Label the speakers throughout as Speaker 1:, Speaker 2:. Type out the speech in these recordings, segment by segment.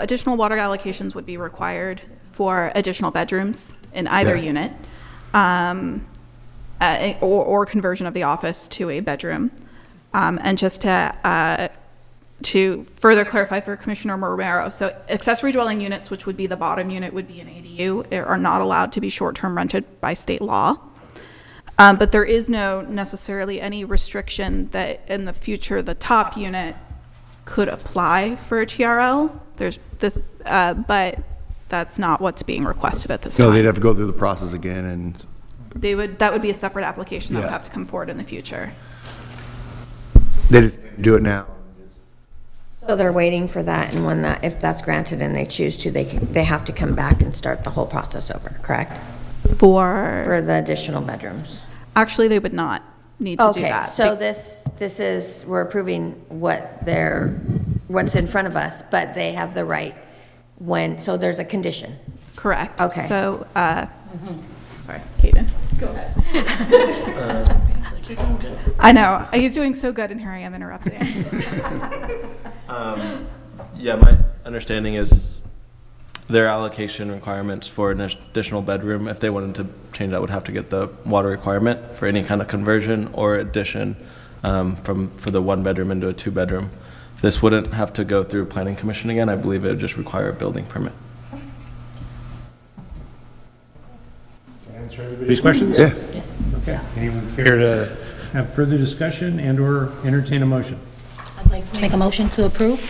Speaker 1: additional water allocations would be required for additional bedrooms in either
Speaker 2: Yeah.
Speaker 1: unit, um, uh, or, or conversion of the office to a bedroom. Um, and just to, uh, to further clarify for Commissioner Romero, so accessory dwelling units, which would be the bottom unit, would be an ADU, are not allowed to be short-term rented by state law. Um, but there is no necessarily any restriction that in the future the top unit could apply for a TRL. There's this, uh, but that's not what's being requested at this
Speaker 2: No, they'd
Speaker 1: time.
Speaker 2: have to go through the process again and,
Speaker 1: They would that would be a separate application that would
Speaker 2: Yeah.
Speaker 1: have to come forward in the future.
Speaker 2: they just do it now.
Speaker 3: So they're waiting for that, and when that, if that's granted and they choose to, they, can- they have to come back and start the whole process over, correct?
Speaker 1: For
Speaker 3: For the additional bedrooms.
Speaker 1: actually, they would not need to do
Speaker 3: Okay,
Speaker 1: that.
Speaker 3: so this, this is, we're approving what they're, what's in front of us, but they have the right when, so there's a condition.
Speaker 1: Correct.
Speaker 3: Okay. Mm-hmm.
Speaker 1: So, uh, sorry, Caden. Go ahead. I know he's doing so good, and here I am interrupting.
Speaker 4: Yeah, my understanding is their allocation requirements for an additional bedroom, if they wanted to change that, would have to get the water requirement for any kind of conversion or addition um, from, for the one bedroom into a two bedroom. This wouldn't have to go through planning commission again. I believe it would just require a building permit.
Speaker 5: Answer everybody's questions?
Speaker 2: Yeah.
Speaker 5: Okay. Anyone care to have further discussion and/or entertain a motion?
Speaker 6: I'd like to make a motion to approve.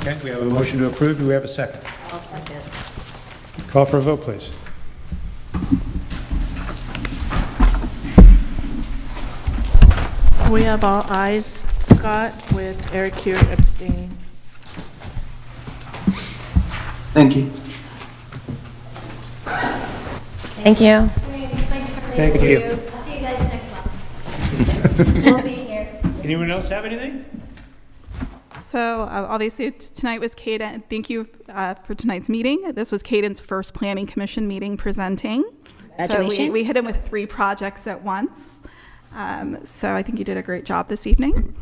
Speaker 5: Okay, we have a motion to approve. Do we have a 2nd Call for a vote, please.
Speaker 7: We have all eyes. Scott with Eric Hewitt abstaining.
Speaker 8: Thank you.
Speaker 3: Thank you.
Speaker 5: Thank you.
Speaker 9: I'll see you guys next month. We'll be here.
Speaker 5: Anyone else have anything?
Speaker 1: So uh, obviously, t- tonight was Caden, thank you uh, for tonight's meeting. This was Caden's first planning commission meeting presenting. So we-
Speaker 6: Congratulations.
Speaker 1: we hit him with three projects at once. Um, So I think he did a great job this evening.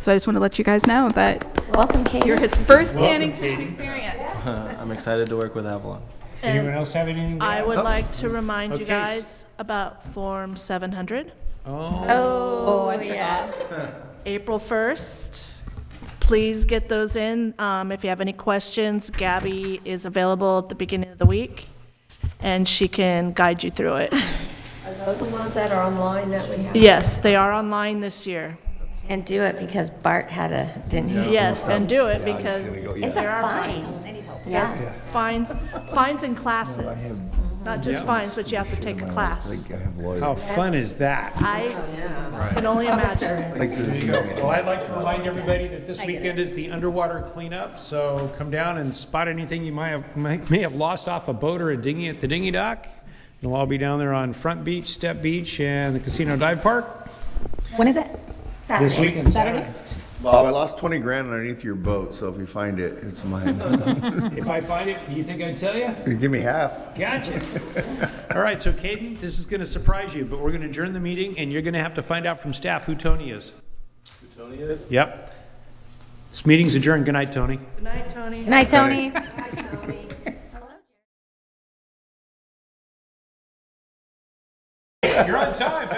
Speaker 1: So I just want to let you guys know that
Speaker 3: Welcome,
Speaker 1: you're
Speaker 3: Kate.
Speaker 1: his first planning commission experience.
Speaker 4: I'm excited to work with Avalon.
Speaker 5: Anyone else have anything? to
Speaker 7: I
Speaker 5: add?
Speaker 7: would like to remind you
Speaker 5: Okay, s-
Speaker 7: guys about Form 700.
Speaker 3: Oh, yeah.
Speaker 7: April 1st. Please get those in. Um, If you have any questions, Gabby is available at the beginning of the week, and she can guide you through it.
Speaker 3: Those are the ones that are online that we have.
Speaker 7: Yes, they are online this year.
Speaker 3: And do it because Bart had a, didn't he?
Speaker 7: Yes, and do it because
Speaker 2: There we go,
Speaker 3: It's
Speaker 2: yeah.
Speaker 3: a fine. Yeah.
Speaker 7: fines, fines and classes, not just fines, but you have to take a class.
Speaker 2: I have lawyers.
Speaker 5: How fun is that?
Speaker 7: I can only imagine.
Speaker 2: Like, there's no-
Speaker 5: Well, I'd like to remind everybody that this weekend is the underwater cleanup, so come down and spot anything you might have, might, may have lost off a boat or a dinghy at the dinghy dock. It'll all be down there on Front Beach, Step Beach, and the Casino Dive Park.
Speaker 6: When is it?
Speaker 5: This weekend, Saturday.
Speaker 2: Bob, I lost 20 grand underneath your boat, so if you find it, it's mine.
Speaker 5: If I find it, you think I'd tell you?
Speaker 2: Give me half.
Speaker 5: Gotcha. All right, so Caden, this is going to surprise you, but we're going to adjourn the meeting, and you're going to have to find out from staff who Tony is.
Speaker 4: Tony is?
Speaker 5: Yep. This meeting's adjourned. Good night, Tony.
Speaker 7: Good night, Tony.
Speaker 6: Good night, Tony.
Speaker 5: You're on time.